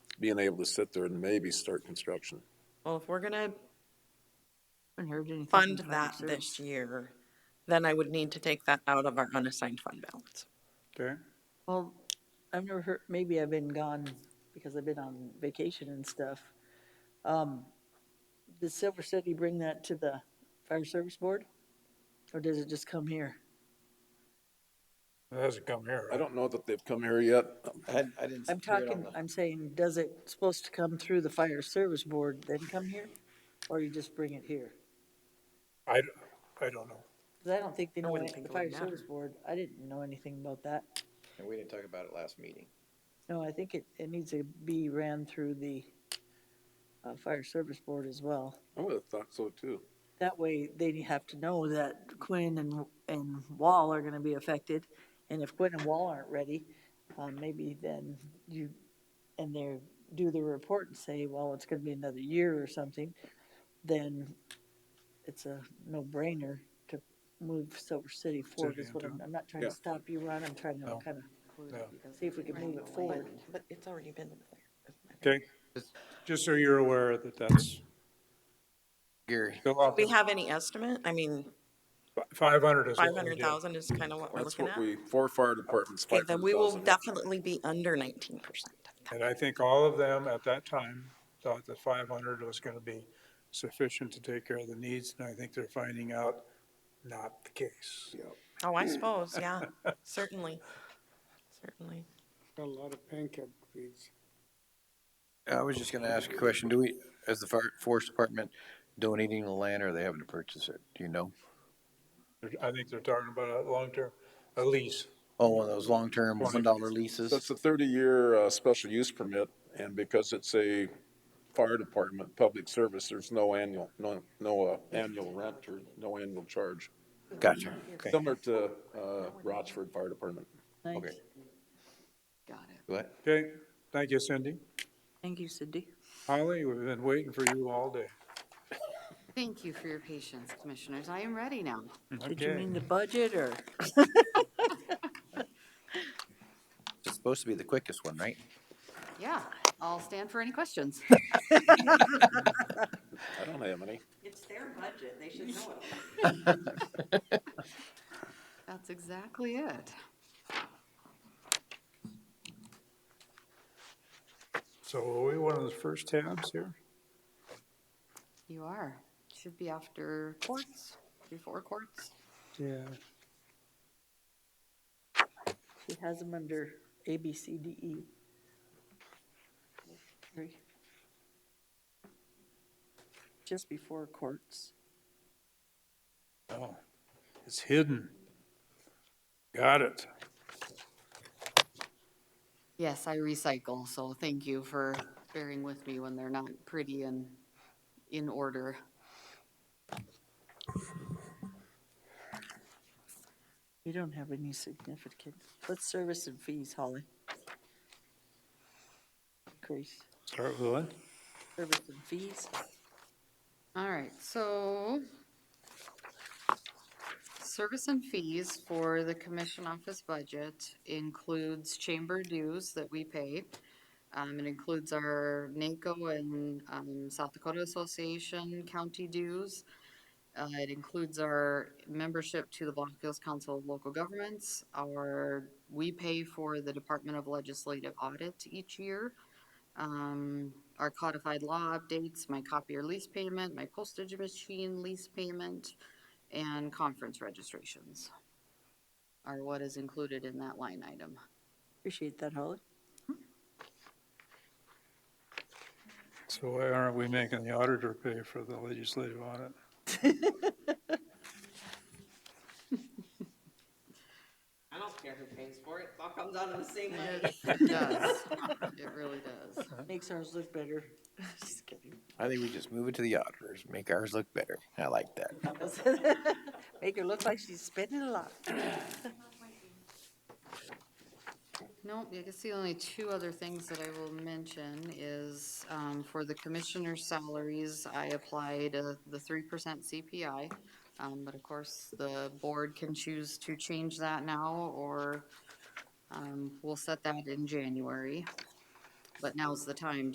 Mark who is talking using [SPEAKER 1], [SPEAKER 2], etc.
[SPEAKER 1] being able to sit there and maybe start construction.
[SPEAKER 2] Well, if we're gonna
[SPEAKER 3] Haven't heard anything from
[SPEAKER 2] fund
[SPEAKER 3] Public
[SPEAKER 2] that
[SPEAKER 3] Service.
[SPEAKER 2] this year, then I would need to take that out of our unassigned fund balance.
[SPEAKER 4] Okay.
[SPEAKER 3] Well, I've never heard, maybe I've been gone because I've been on vacation and stuff. Um, Does Silver City bring that to the fire service board? Or does it just come here?
[SPEAKER 4] It hasn't come here.
[SPEAKER 1] I don't know that they've come here yet. Um,
[SPEAKER 5] I, I didn't.
[SPEAKER 3] I'm
[SPEAKER 5] see it on
[SPEAKER 3] talking,
[SPEAKER 5] the-
[SPEAKER 3] I'm saying, does it supposed to come through the fire service board, then come here? Or you just bring it here?
[SPEAKER 4] I, d- I don't know.
[SPEAKER 3] Because I don't think they know,
[SPEAKER 2] wouldn't
[SPEAKER 3] any-
[SPEAKER 2] think
[SPEAKER 3] the
[SPEAKER 2] it would
[SPEAKER 3] fire service
[SPEAKER 2] matter.
[SPEAKER 3] board, I didn't know anything about that.
[SPEAKER 5] And we didn't talk about it last meeting.
[SPEAKER 3] No, I think it, it needs to be ran through the uh, fire service board as well.
[SPEAKER 1] I would have thought so too.
[SPEAKER 3] That way, they have to know that Quinn and, and Wall are gonna be affected, and if Quinn and Wall aren't ready, um, maybe then you, and they do the report and say, well, it's gonna be another year or something, then it's a no-brainer to move Silver City forward, is what I'm, I'm not trying to
[SPEAKER 1] Yeah.
[SPEAKER 3] stop you, Ron, I'm trying to
[SPEAKER 4] No.
[SPEAKER 3] kinda
[SPEAKER 4] Yeah.
[SPEAKER 3] see if we can move it forward.
[SPEAKER 2] But it's already been there.
[SPEAKER 4] Okay. Just so you're aware that that's
[SPEAKER 5] Gary,
[SPEAKER 4] go up.
[SPEAKER 2] Do we have any estimate? I mean,
[SPEAKER 4] Five hundred is
[SPEAKER 2] five
[SPEAKER 4] what we
[SPEAKER 2] hundred
[SPEAKER 4] did.
[SPEAKER 2] thousand is kind of what we're
[SPEAKER 1] That's
[SPEAKER 2] looking
[SPEAKER 1] what
[SPEAKER 2] at.
[SPEAKER 1] we, four fire departments,
[SPEAKER 2] Okay,
[SPEAKER 1] five
[SPEAKER 2] then
[SPEAKER 1] hundred
[SPEAKER 2] we will
[SPEAKER 1] thousand.
[SPEAKER 2] definitely be under nineteen percent.
[SPEAKER 4] And I think all of them at that time thought that five hundred was gonna be sufficient to take care of the needs, and I think they're finding out not the case.
[SPEAKER 2] Oh, I suppose, yeah, certainly, certainly.
[SPEAKER 6] Got a lot of pancake feeds.
[SPEAKER 5] I was just gonna ask a question. Do we, as the fire, forest department donating the land or are they having to purchase it? Do you know?
[SPEAKER 4] They're- I think they're talking about a long-term, a lease.
[SPEAKER 5] Oh, one of those long-term one dollar
[SPEAKER 1] That's
[SPEAKER 5] leases?
[SPEAKER 1] a thirty-year, uh, special use permit, and because it's a fire department, public service, there's no annual, no, no, uh, annual rent or no annual charge.
[SPEAKER 5] Gotcha. Okay.
[SPEAKER 1] Similar to, uh, Rochford Fire Department.
[SPEAKER 3] Nice,
[SPEAKER 5] Okay. What?
[SPEAKER 4] Okay, thank you, Cindy.
[SPEAKER 3] thank you, Cindy.
[SPEAKER 4] Holly, we've been waiting for you all day.
[SPEAKER 7] Thank you for your patience, commissioners. I am ready now.
[SPEAKER 3] Did you
[SPEAKER 4] Okay,
[SPEAKER 3] mean the budget, or?
[SPEAKER 5] It's supposed to be the quickest one, right?
[SPEAKER 7] Yeah, I'll stand for any questions.
[SPEAKER 1] I don't have any.
[SPEAKER 8] It's their budget, they should know it.
[SPEAKER 7] That's exactly it.
[SPEAKER 4] so are we one of the first tabs here?
[SPEAKER 7] You are. Should be after courts, before courts.
[SPEAKER 4] Yeah.
[SPEAKER 3] She has them under A, B, C, D, E. Three. Just before courts.
[SPEAKER 4] Oh, it's hidden. Got it.
[SPEAKER 7] Yes, I recycle, so thank you for bearing with me when they're not pretty and in order.
[SPEAKER 3] We don't have any significant, what's service and fees, Holly? Increase,
[SPEAKER 4] Start with what?
[SPEAKER 3] service and fees?
[SPEAKER 7] All right, so service and fees for the commission office budget includes chamber dues that we pay. Um, it includes our NACO and, um, South Dakota Association county dues. Uh, it includes our membership to the Blackfields Council of Local Governments, our, we pay for the Department of Legislative Audit each year um, our codified law updates, my copier lease payment, my postage machine lease payment, and conference registrations are what is included in that line item.
[SPEAKER 3] Appreciate that, Holly.
[SPEAKER 4] So why aren't we making the auditor pay for the legislative audit?
[SPEAKER 8] I don't care who pays for it, it all comes out of the same money.
[SPEAKER 7] It does. It really does.
[SPEAKER 3] Makes ours look better. Just kidding.
[SPEAKER 5] I think we just move it to the auditors, make ours look better. I like that.
[SPEAKER 3] Make her look like she's spending a lot.
[SPEAKER 7] Nope, I guess the only two other things that I will mention is, um, for the commissioner's salaries, I applied uh, the three percent CPI. Um, but of course, the board can choose to change that now, or, um, we'll set that in January. But now's the time